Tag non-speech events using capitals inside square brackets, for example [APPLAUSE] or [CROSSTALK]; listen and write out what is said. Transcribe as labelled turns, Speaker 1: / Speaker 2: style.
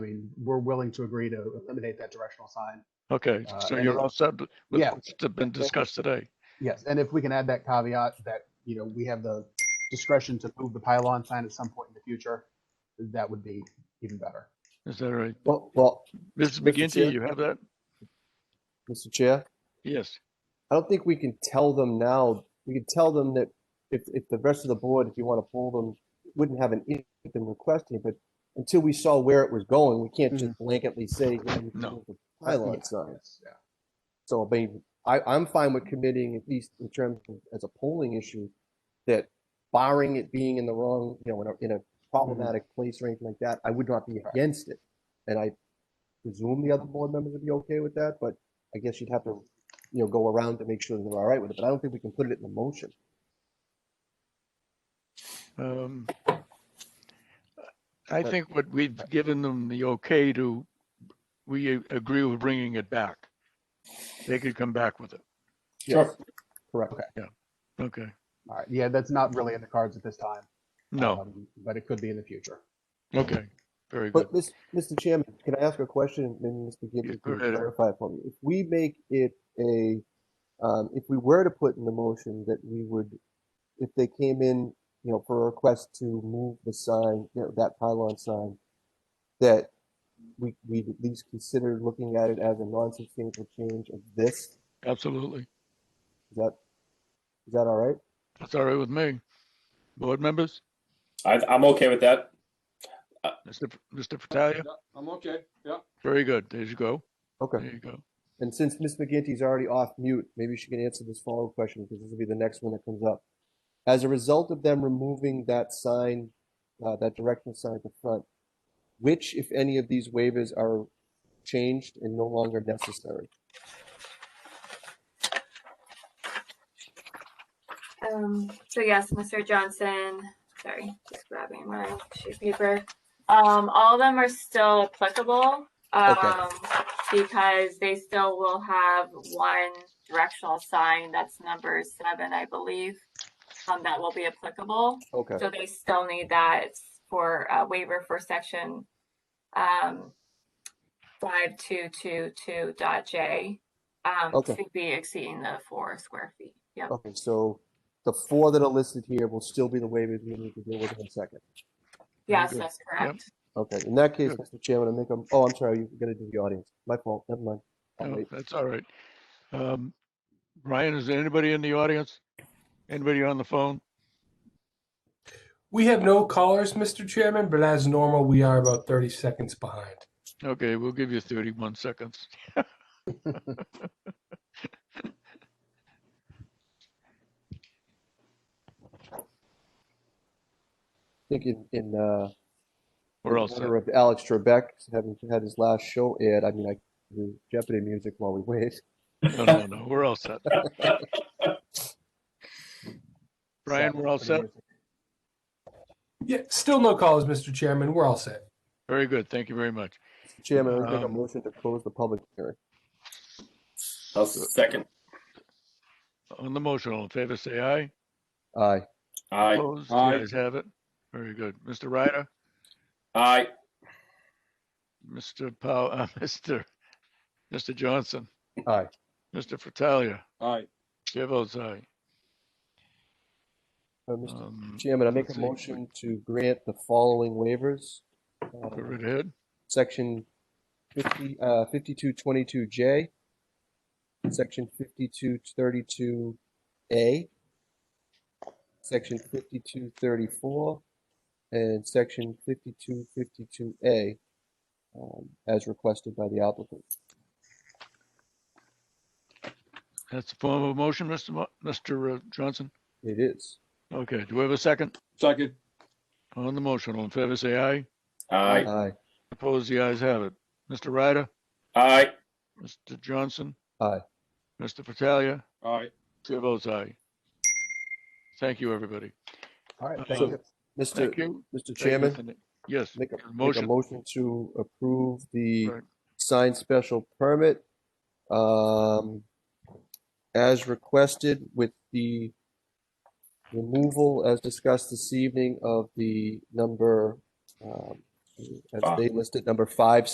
Speaker 1: I mean, we're willing to agree to eliminate that directional sign.
Speaker 2: Okay,
Speaker 1: Uh,
Speaker 2: so
Speaker 1: and
Speaker 2: you're
Speaker 1: it-
Speaker 2: all set with
Speaker 1: Yeah.
Speaker 2: what's been discussed today.
Speaker 1: Yes, and if we can add that caveat that, you know, we have the discretion to move the pylon sign at some point in the future, that would be even better.
Speaker 2: Is that right?
Speaker 3: Well, well,
Speaker 2: Mrs.
Speaker 3: Mr.
Speaker 2: McGinty,
Speaker 3: Chair?
Speaker 2: you have that?
Speaker 3: Mr. Chair,
Speaker 2: Yes.
Speaker 3: I don't think we can tell them now. We can tell them that if, if the rest of the board, if you want to pull them, wouldn't have an issue with them requesting, it, but until we saw where it was going, we can't just blanketly say. you know, you can
Speaker 2: No.
Speaker 3: move the Pylon
Speaker 1: Yeah,
Speaker 3: sign.
Speaker 1: yes, yeah.
Speaker 3: So, I mean, I, I'm fine with committing, at least in terms of, as a polling issue, that barring it being in the wrong, you know, in a, in a problematic place or anything like that, I would not be against it. And I presume the other board members would be okay with that, but I guess you'd have to, you know, go around to make sure they're all right with it, but I don't think we can put it in the motion.
Speaker 2: Um,
Speaker 1: Uh,
Speaker 2: I think what we've given them the okay to, we a- agree with bringing it back. They could come back with it.
Speaker 3: Yes, Correct.
Speaker 2: Okay.
Speaker 1: All right, yeah, that's not really in the cards at this time.
Speaker 2: No.
Speaker 1: um, But it could be in the future. Uh,
Speaker 2: Okay. Very good.
Speaker 3: But, Mis- Mr. Chairman, can I ask a question? Maybe Mr.
Speaker 2: Yeah,
Speaker 3: Gibson
Speaker 2: go
Speaker 3: can
Speaker 2: ahead.
Speaker 3: clarify for me. If we make it a, um, if we were to put in the motion that we would, if they came in, you know, for a request to move the sign, you know, that pylon sign, that we, we'd at least consider looking at it as a non-substantial change of this,
Speaker 2: Absolutely.
Speaker 3: is that, is that all right?
Speaker 2: That's all right with me. Board members,
Speaker 4: I, I'm okay with that.
Speaker 2: Mr. F- Mr. Fratalia,
Speaker 5: I'm okay, yeah.
Speaker 2: very good. There you go. There
Speaker 3: Okay.
Speaker 2: you go.
Speaker 3: And since Ms. McGinty's already off mute, maybe she can answer this follow-up question because this will be the next one that comes up. As a result of them removing that sign, uh, that directional sign at the front, which, if any of these waivers are changed and no longer necessary?
Speaker 6: Um, so yes, Mr. Johnson, sorry, just grabbing my sheet of paper. Um, all of them are still applicable, um, because they still will have one directional sign, that's number seven, I believe, um, that will be applicable.
Speaker 3: Okay,
Speaker 6: So they still need that for a waiver for section, um, five two two two dot J. Um,
Speaker 3: Okay. Oh,
Speaker 6: to be exceeding the four square feet, yep.
Speaker 3: okay, so the four that are listed here will still be the waivers we need to deal with in a second.
Speaker 6: Yes,
Speaker 3: good.
Speaker 6: that's correct.
Speaker 3: Okay, in that case,
Speaker 2: Good.
Speaker 3: Mr. Chairman, I make a, oh, I'm sorry, you're gonna do the audience. My fault, never mind. I'll
Speaker 2: No,
Speaker 3: wait.
Speaker 2: Oh, that's all right. Um, Ryan, is there anybody in the audience? Anybody on the phone?
Speaker 7: We have no callers, Mr. Chairman, but as normal, we are about 30 seconds behind.
Speaker 2: Okay, we'll give you thirty-one seconds.
Speaker 3: I think in, in, uh,
Speaker 2: We're all
Speaker 3: in
Speaker 2: set.
Speaker 3: honor of Alex Trebek having had his last show aired. I mean, I can do Jeopardy music while we wait.
Speaker 2: No, no, no, we're all set. Brian, we're all set.
Speaker 7: Yeah, still no callers, Mr. Chairman. We're all set.
Speaker 2: Very good. Thank you very much.
Speaker 3: Chairman, I'm make a
Speaker 2: Um,
Speaker 3: motion to close the public hearing.
Speaker 4: I'll second.
Speaker 2: On the motion, all in favor, say aye.
Speaker 3: Aye.
Speaker 4: Aye.
Speaker 2: Opposed, the
Speaker 5: Aye.
Speaker 2: ayes have it. Very good. Mr. Ryder,
Speaker 4: Aye.
Speaker 2: Mr. Pow, uh, [LAUGHS] Mr. Mr. Johnson,
Speaker 3: Aye.
Speaker 2: Mr. Fratalia,
Speaker 5: All right,
Speaker 2: chair votes aye.
Speaker 3: Uh, Mr.
Speaker 2: Um,
Speaker 3: Chairman, I make
Speaker 2: let's
Speaker 3: a
Speaker 2: see.
Speaker 3: motion to grant the following waivers. Uh,
Speaker 2: Go right ahead.
Speaker 3: Section fifty, uh, fifty-two twenty-two J, section fifty-two thirty-two A, section fifty-two thirty-four, and section fifty-two fifty-two A, um, as requested by the applicant.
Speaker 2: That's the form of motion, Mr. Mo- Mr. uh, Johnson.
Speaker 3: It is.
Speaker 2: Okay, do we have a second?
Speaker 5: second,
Speaker 2: On the motion, all in favor, say aye.
Speaker 4: Aye.
Speaker 3: Aye.
Speaker 2: Opposed, the ayes have it. Mr. Ryder,
Speaker 4: Aye.
Speaker 2: Mr. Johnson.
Speaker 3: Aye.
Speaker 2: Mr. Fratalia,
Speaker 5: all right.
Speaker 2: chair votes aye. Thank you, everybody.
Speaker 1: All right,
Speaker 2: Uh, So-
Speaker 1: thank you.
Speaker 3: Mr.
Speaker 2: Thank you.
Speaker 3: Mr.
Speaker 2: Thank you,
Speaker 3: Chairman,
Speaker 2: Mr. Nick. Yes,
Speaker 3: make a, make a
Speaker 2: motion.
Speaker 3: motion to approve the
Speaker 2: Right.
Speaker 3: signed special permit, um, as requested with the removal, as discussed this evening, of the number, um, as they listed number five,